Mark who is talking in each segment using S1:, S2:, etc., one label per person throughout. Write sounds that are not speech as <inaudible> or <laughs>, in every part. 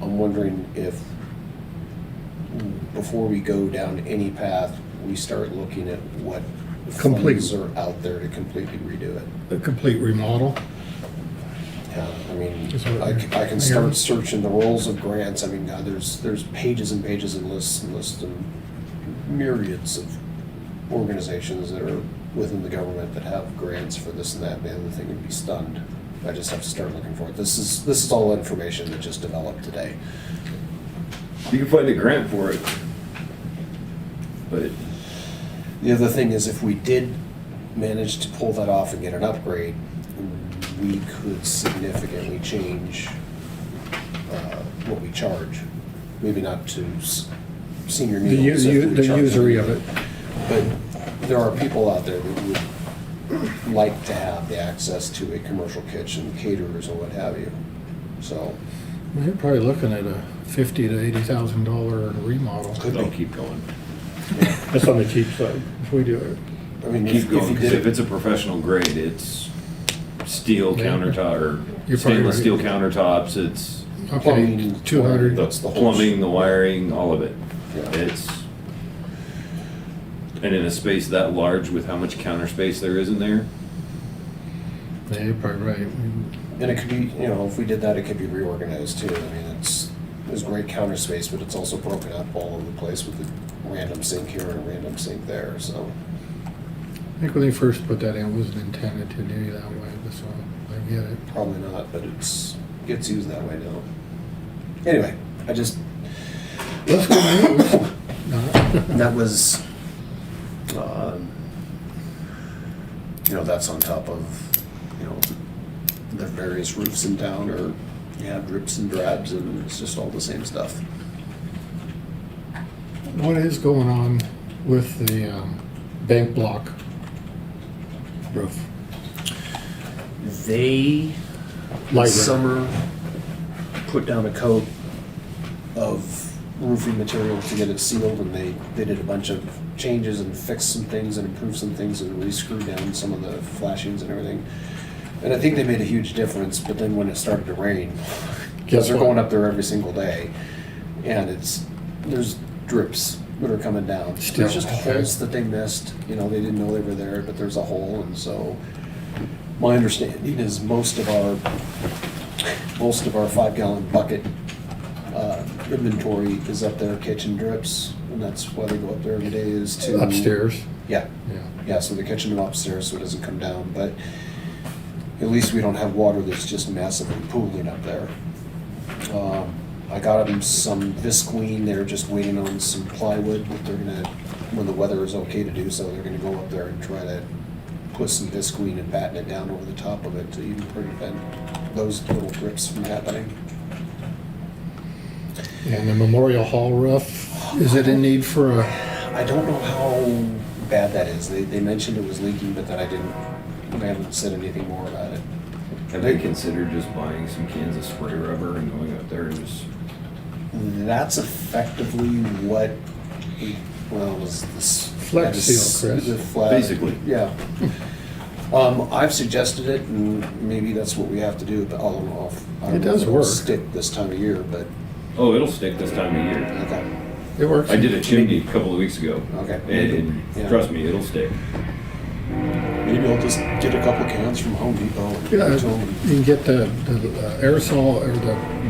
S1: I'm wondering if, before we go down any path, we start looking at what
S2: Complete.
S1: funds are out there to completely redo it.
S2: A complete remodel.
S1: Yeah, I mean,
S2: Is what
S1: I,
S2: you're-
S1: c- I can
S2: you're-
S1: start searching the rolls of grants, I mean, God, there's, there's pages and pages and lists and lists and myriads of organizations that are within the government that have grants for this and that, man, the thing would be stunned. I just have to start looking for it. This is, this is all information that just developed today.
S3: You can find a grant for it. But
S1: The other thing is if we did manage to pull that off and get an upgrade, we could significantly change uh, what we charge. Maybe not to s- senior
S2: The
S1: meals. if
S2: u-
S1: we
S2: the
S1: charge
S2: usury of
S1: them.
S2: it.
S1: But there are people out there that would like to have the access to a commercial kitchen, caterers or what have you. So,
S2: You're probably looking at a fifty to eighty thousand dollar remodel.
S1: Could
S3: I'll keep going.
S4: That's on the cheap side.
S2: If we do it.
S1: I mean, if
S3: Keep
S1: if you
S3: going, because
S1: did it.
S3: if it's a professional grade, it's steel
S2: Yeah.
S3: countertop or
S2: You're probably
S3: stainless
S2: right.
S3: steel countertops, it's
S2: Okay,
S1: Plumbing,
S2: two hundred.
S3: the
S1: That's the whole-
S3: plumbing, the wiring, all of it.
S1: Yeah.
S3: It's, and in a space that large with how much counter space there is in there,
S2: Yeah, you're probably right.
S1: And it could be, you know, if we did that, it could be reorganized too. I mean, it's, there's great counter space, but it's also broken up all over the place with a random sink here and a random sink there, so.
S2: I think when they first put that in, it wasn't intended to do that way, but so I get it.
S1: Probably not, but it's, gets used that way now. Anyway, I just, <coughs>
S2: Let's go now. <laughs> No.
S1: that was, um, you know, that's on top of, you know, the various roofs in town or, you have drips and drabs and it's just all the same stuff.
S2: What is going on with the um, bank block roof?
S1: They
S2: Light rail.
S1: summer put down a coat of roofing material to get it sealed and they, they did a bunch of changes and fixed some things and improved some things and re-screwed down some of the flashings and everything. And I think they made a huge difference, but then when it started to rain, because
S2: Guess
S1: they're
S2: what?
S1: going up there every single day, and it's, there's drips that are coming down.
S2: Still,
S1: There's just
S2: okay.
S1: holes that they missed, you know, they didn't know they were there, but there's a hole, and so my understanding is most of our, most of our five gallon bucket uh, inventory is up there, kitchen drips, and that's why they go up there every day is to.
S2: Upstairs,
S1: Yeah,
S2: yeah.
S1: yeah, so the kitchen upstairs, so it doesn't come down, but at least we don't have water that's just massively pooling up there. Um, I got them some visqueen, they're just waiting on some plywood, that they're gonna, when the weather is okay to do so, they're gonna go up there and try to put some visqueen and batten it down over the top of it to even prevent those little drips from happening.
S2: And the Memorial Hall roof, is it in need for a,
S1: I don't know how bad that is, they, they mentioned it was leaking, but then I didn't, I haven't said anything more about it.
S3: have they considered just buying some cans of spray rubber and going up there and just,
S1: That's effectively what, we- well, it was this.
S2: Flex seal, Chris.
S1: The fla-
S3: Basically.
S1: Yeah. Um, I've suggested it, and maybe that's what we have to do, but I don't know if. I don't
S2: It
S1: know if
S2: does
S1: it'll
S2: work.
S1: Stick this time of year, but,
S3: oh, it'll stick this time of year.
S1: okay,
S2: it works?
S3: I did a chimney a couple of weeks ago.
S1: Okay.
S3: And, and
S1: Yeah.
S3: trust me, it'll stick.
S1: maybe I'll just get a couple cans from Home Depot and give
S2: Yeah,
S1: them
S2: You
S1: to 'em.
S2: can get the the uh, aerosol or the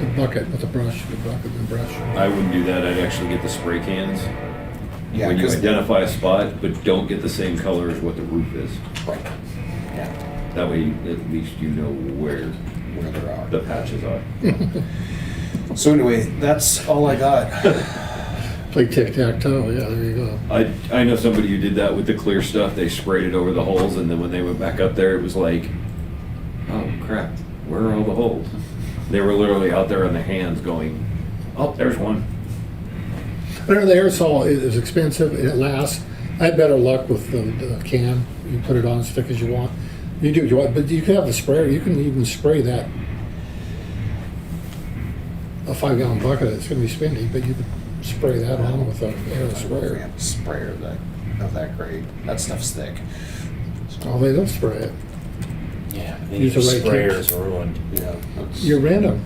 S2: the bucket with the brush, the bucket and brush.
S3: I wouldn't do that, I'd actually get the spray cans.
S1: Yeah,
S3: When you
S1: 'cause-
S3: identify a spot, but don't get the same color as what the roof is.
S1: Right, yeah,
S3: That way, at least you know where
S1: where there are.
S3: the patches are.
S1: So anyway, that's all I got.
S2: Play tic-tac-toe, yeah, there you go.
S3: I, I know somebody who did that with the clear stuff. They sprayed it over the holes, and then when they went back up there, it was like, oh crap, where are all the holes? They were literally out there on the hands going, oh, there's one.
S2: I know the aerosol i- is expensive, it lasts. I had better luck with the the can. You put it on as thick as you want. You do what you want, but you can have the sprayer, you can even spray that. A five gallon bucket, it's gonna be spendy, but you could spray that on with a aero
S1: I don't know if we
S2: sprayer.
S1: have a Sprayer that, of that grade, that stuff's thick.
S2: Oh, they don't spray it.
S5: Yeah,
S2: Use
S5: these
S2: the right
S5: sprayers ruined.
S1: Yeah. that's-
S2: You're random.